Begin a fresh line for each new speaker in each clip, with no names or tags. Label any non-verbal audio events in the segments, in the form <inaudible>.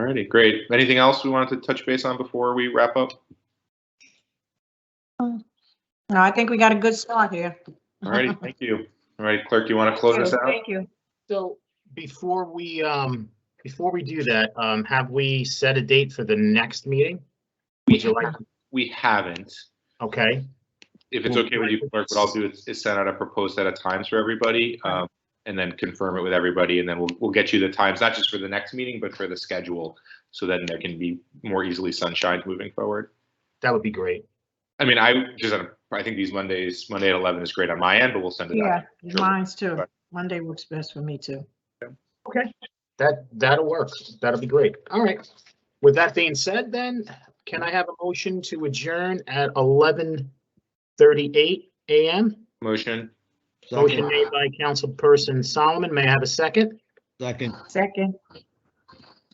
righty, great. Anything else we wanted to touch base on before we wrap up?
No, I think we got a good start here.
All righty, <laughs> thank you. All right, clerk, you want to close us out?
Thank you.
So before we, um, before we do that, um, have we set a date for the next meeting? Would you like,
We haven't.
okay,
If it's okay with you, clerk, what I'll do is, is send out a proposed set of times for everybody, um, and then confirm it with everybody, and then we'll, we'll get you the times, not just for the next meeting, but for the schedule. So then there can be more easily sunshined moving forward.
that would be great.
I mean, I just, I think these Mondays, Monday at eleven is great on my end, but we'll send it
Yeah,
out.
mine's too. Monday works best for me too.
Okay. That, that'll work. That'll be great. All right. With that being said, then, can I have a motion to adjourn at eleven thirty-eight AM?
Motion,
Motion made by Councilperson Solomon. May I have a second?
Second,
Second,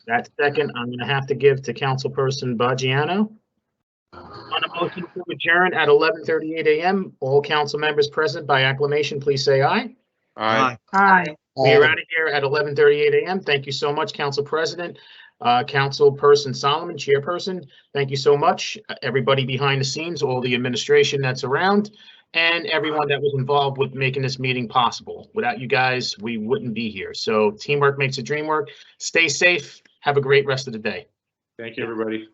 That second, I'm gonna have to give to Councilperson Bajiano. On a motion to adjourn at eleven thirty-eight AM, all council members present by acclamation, please say aye.
aye.
aye.
We are out of here at eleven thirty-eight AM. Thank you so much, Council President, uh, Councilperson Solomon, Chairperson. Thank you so much, everybody behind the scenes, all the administration that's around, and everyone that was involved with making this meeting possible. Without you guys, we wouldn't be here. So teamwork makes a dream work. Stay safe. Have a great rest of the day.
Thank you, everybody.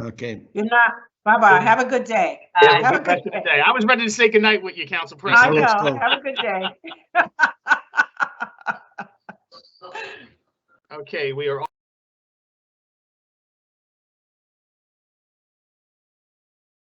okay.
You're not, bye-bye. Have a good day.
Have a
Have a
good rest
good
of the
day.
day. I was ready to say goodnight with you, Council
I
President.
Let's
know.
go.
Have a good day.
Okay, we are